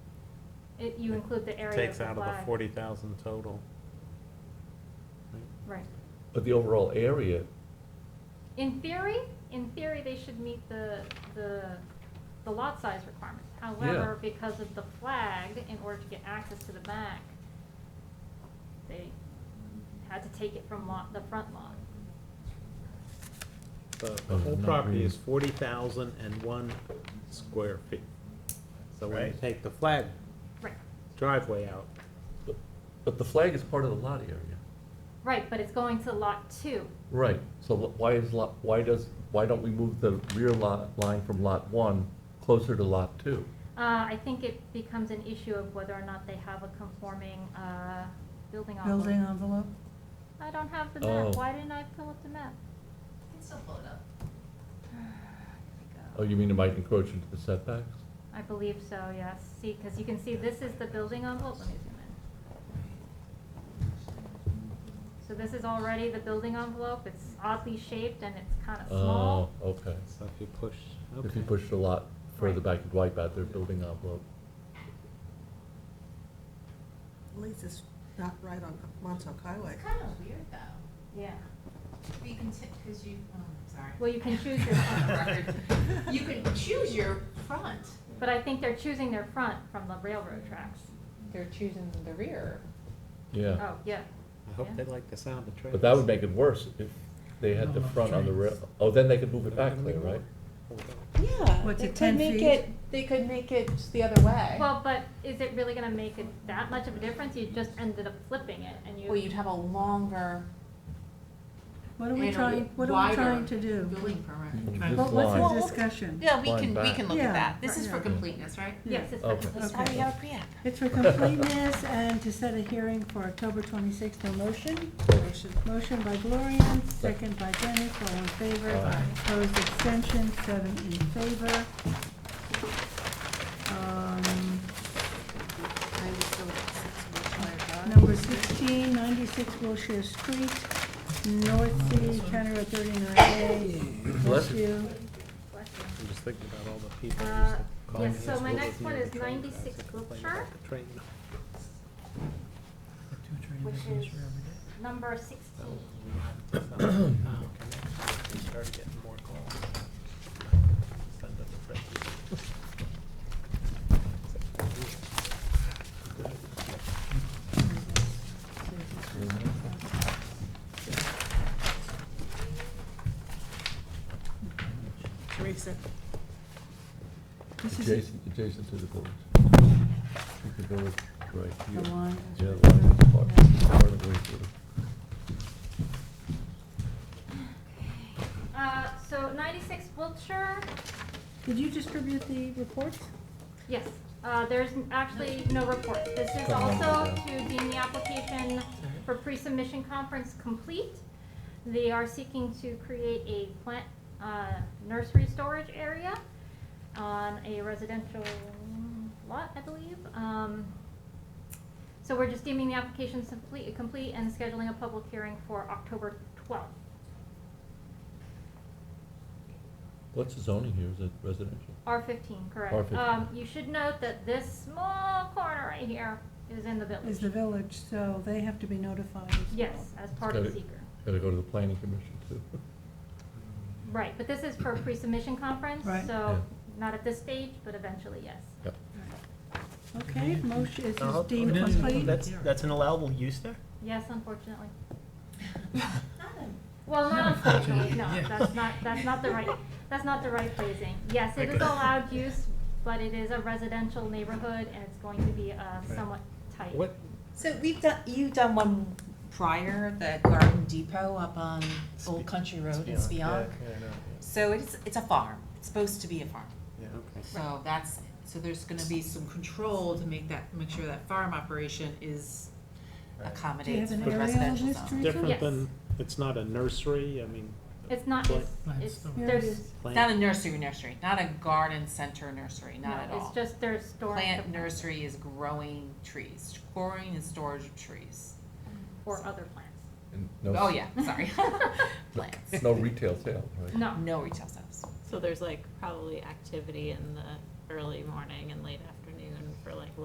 it, you include the area of Takes the out of the flag. forty thousand total. Right. But the overall area, In theory, in theory, they should meet the, the, the lot size requirements. However, because of the flag, in order to get access to the back, they had to take it from lot, the front lot. The, Oh, the whole not property really. is forty thousand and one square feet. So when you Right. take the flag Right, driveway out, but, but the flag is part of the lot area. right, but it's going to lot two. Right, so wh- why is lot, why does, why don't we move the rear lot line from lot one closer to lot two? Uh, I think it becomes an issue of whether or not they have a conforming, uh, building envelope. building envelope? I don't have the map. Oh. Why didn't I pull up the map? Can still pull it up. Here we Oh, go. you mean it might encroach into the setbacks? I believe so, yes. See, because you can see this is the building envelope. Let me zoom in. So this is already the building envelope. It's oddly shaped and it's kind of Oh, small. okay. so if you push, okay. If you push the lot further Right. back, you'd wipe out their building envelope. At least it's not right on Montauk Highway. It's kind of weird though. Yeah. You can, because you, oh, sorry. Well, you can choose your front. You can choose your front. But I think they're choosing their front from the railroad tracks. They're choosing the rear. Yeah, Oh, yeah. I hope Yeah. they like the sound of trains. but that would make it worse if they had the front on the rail, oh, then they could move it back clear, right? Yeah. What's they it, could 10 make feet? it- They could make it the other way. Well, but is it really going to make it that much of a difference? You just ended up flipping it and you. Well, you'd have a longer. What are we and a trying, what are we wider trying to do? Building permit. From What- Mm-hmm. this line. What's the discussion? Yeah, we Line can, we back. can look at Yeah, that. This is for yeah. completeness, right? Yes, it's. Okay. for- That's why we have a pre-app. It's for completeness and to set a hearing for October twenty-sixth, no motion? Motion. Motion by Gloria, second by Dennis, all in favor. Aye. Opposed, abstention, seven in favor. Um, Number sixteen, ninety-six Wilshire Street, North Sea, County Road thirty-nine A, Bless Westview. I'm just thinking about all the people who used Uh, to call yes, me so as my well next as me one on the is train tracks 96 and complain Wiltshire. about the train. Which is number sixteen. Oh, okay. We started getting more calls. Send them to Fred. Teresa. This is Adjacent, adjacent to the village. The village, right here. the line. Yeah, the line is part, part of the way through. Uh, so ninety-six Wiltshire, Did you distribute the reports? yes, uh, there's n- actually no report. This is Come on, also Lisa. to deem the application for pre-submission conference complete. They are seeking to create a plant, uh, nursery storage area on a residential lot, I believe. Um, so we're just deeming the application complete, complete and scheduling a public hearing for October twelfth. What's the zoning here? Is it residential? R fifteen, correct. R15. Um, you should note that this small corner right here is in the Is the village. village, so they have to be notified as well. Yes, as part of Got the it. seeker. Gotta go to the planning commission too. Right, but this is for a pre-submission conference, Right. Yeah. so not at this stage, but eventually, yes. Yep. Okay, motion is Uh, this deemed no, no, no, complete? That's, that's an allowable use there? Yes, unfortunately. Not a- Well, not unfortunately, no, that's not, that's not the right, that's not the right phrasing. Yes, it is allowed use, but it is a residential neighborhood and it's going to be, uh, somewhat tight. What, So we've done, you've done one prior, the Garden Depot up on Old Country Road in Spionk. So it's, it's a farm, it's supposed to be a farm. Yeah, okay. So that's, so there's gonna be some control to make that, make sure that farm operation is Right. Do you have accommodates an for aerial on residential this, zone. Teresa? Different Yes. than, it's not a nursery, I mean. It's not, Plant- it's, it's, Yeah, it there's, is. plant- Not a nursery nursery, not a garden center nursery, no, not at all. it's just there's storage. Plant of- nursery is growing trees, growing and storage of trees. Or other plants. And no Oh, s- yeah, sorry. Plants, No retail sale, right? No, no retail sales. So there's like probably activity in the early morning and late afternoon for like